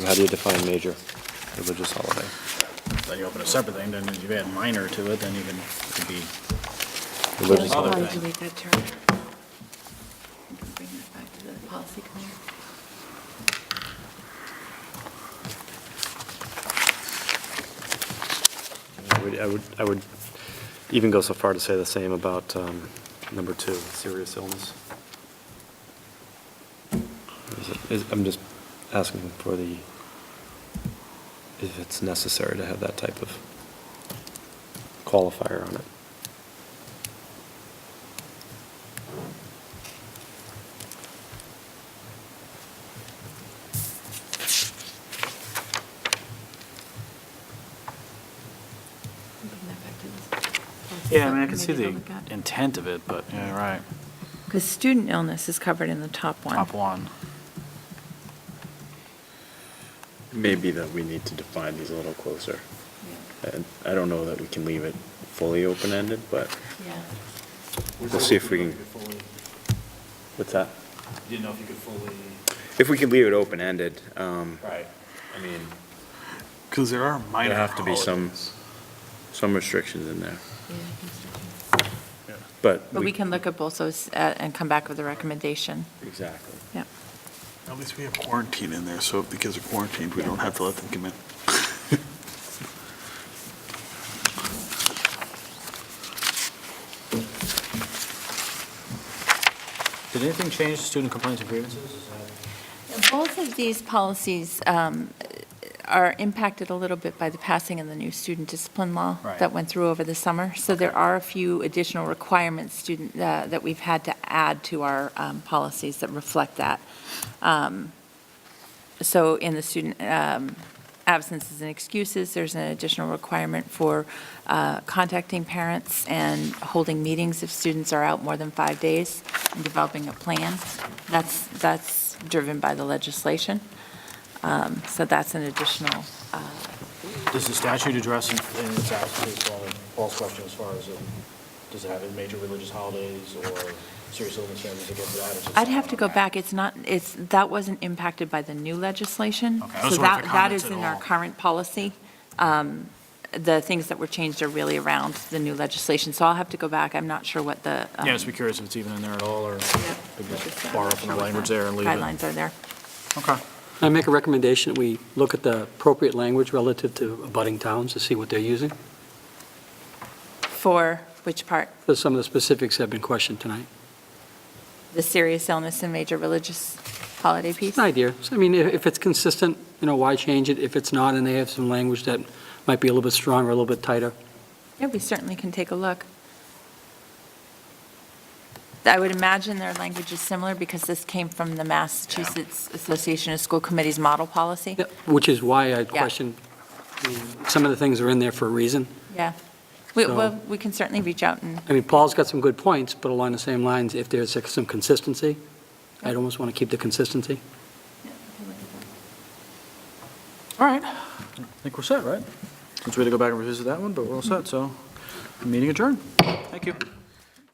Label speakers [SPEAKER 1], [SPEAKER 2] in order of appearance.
[SPEAKER 1] how do you define major religious holiday?
[SPEAKER 2] Then you open a separate thing, then if you add minor to it, then you can, it could be,
[SPEAKER 1] Religious
[SPEAKER 2] Other
[SPEAKER 3] How
[SPEAKER 1] holiday.
[SPEAKER 2] than-
[SPEAKER 3] did you make that term? Bring that back to the policy committee.
[SPEAKER 1] I would- I would, I would even go so far to say the same about um, number two, serious illness. Is it- is- I'm just asking for the, if it's necessary to have that type of qualifier on it.
[SPEAKER 3] Bring that back to the policy
[SPEAKER 2] yeah, I mean, I can see
[SPEAKER 3] subcommittee to
[SPEAKER 2] the
[SPEAKER 3] look at.
[SPEAKER 2] intent of it, but, yeah, right,
[SPEAKER 3] Because student illness is covered in the top one.
[SPEAKER 2] top one.
[SPEAKER 4] Maybe that we need to define these a little closer.
[SPEAKER 3] Yeah.
[SPEAKER 4] And I don't know that we can leave it fully open-ended, but
[SPEAKER 3] Yeah.
[SPEAKER 4] we'll see if we can, what's that?
[SPEAKER 2] Didn't know if you could fully.
[SPEAKER 4] If we can leave it open-ended, um,
[SPEAKER 2] Right.
[SPEAKER 4] I mean,
[SPEAKER 2] Because there are minor
[SPEAKER 4] there have to be some,
[SPEAKER 2] holidays.
[SPEAKER 4] some restrictions in there,
[SPEAKER 3] Yeah, I think so, too.
[SPEAKER 4] but.
[SPEAKER 3] But we can look at both those uh, and come back with a recommendation.
[SPEAKER 4] Exactly.
[SPEAKER 3] Yeah.
[SPEAKER 5] At least we have quarantine in there, so if the kids are quarantined, we don't have to let them come in.
[SPEAKER 2] Did anything change to student complaints and grievances? Is that-
[SPEAKER 3] Both of these policies um, are impacted a little bit by the passing of the new student discipline law
[SPEAKER 2] Right.
[SPEAKER 3] that went through over the summer. So there are a few additional requirements student, uh, that we've had to add to our um, policies that reflect that. Um, So in the student um, absences and excuses, there's an additional requirement for uh, contacting parents and holding meetings if students are out more than five days and developing a plan. That's, that's driven by the legislation. Um, So that's an additional, uh,
[SPEAKER 2] Does the statute address in in its absence, uh, Paul's question as far as, uh, does it have any major religious holidays or serious illness families that go to that? or is it
[SPEAKER 3] I'd have to go
[SPEAKER 2] separate?
[SPEAKER 3] back, it's not, it's, that wasn't impacted by the new legislation.
[SPEAKER 2] Okay, I was
[SPEAKER 3] So
[SPEAKER 2] wondering
[SPEAKER 3] that,
[SPEAKER 2] if it
[SPEAKER 3] that is
[SPEAKER 2] comments at
[SPEAKER 3] in our
[SPEAKER 2] all.
[SPEAKER 3] current policy. Um, The things that were changed are really around the new legislation, so I'll have to go back, I'm not sure what the. um,
[SPEAKER 2] Yeah, just be curious if it's even in there at all, or
[SPEAKER 3] yeah,
[SPEAKER 2] we
[SPEAKER 3] what the
[SPEAKER 2] just borrow from the
[SPEAKER 3] statute-
[SPEAKER 2] language there and leave it.
[SPEAKER 3] Guidelines are there.
[SPEAKER 2] Okay.
[SPEAKER 6] I make a recommendation, that we look at the appropriate language relative to abutting towns to see what they're using,
[SPEAKER 3] For which part?
[SPEAKER 6] because some of the specifics have been questioned tonight.
[SPEAKER 3] The serious illness and major religious holiday piece?
[SPEAKER 6] It's an idea. So, I mean, if if it's consistent, you know, why change it? If it's not, and they have some language that might be a little bit stronger, a little bit tighter,
[SPEAKER 3] Yeah, we certainly can take a look. I would imagine their language is similar because this came from the Massachusetts Association of School Committees model policy.
[SPEAKER 6] Yeah, which is why I question, I mean, some of the things are in there for a reason.
[SPEAKER 3] Yeah. We,
[SPEAKER 6] So-
[SPEAKER 3] well, we can certainly reach out and,
[SPEAKER 6] I mean, Paul's got some good points, but along the same lines, if there's like, some consistency, I'd
[SPEAKER 3] Yeah.
[SPEAKER 6] almost want to keep the consistency.
[SPEAKER 2] All right. I think we're set, right? Since we had to go back and revisit that one, but we're all set, so meeting adjourned. Thank you.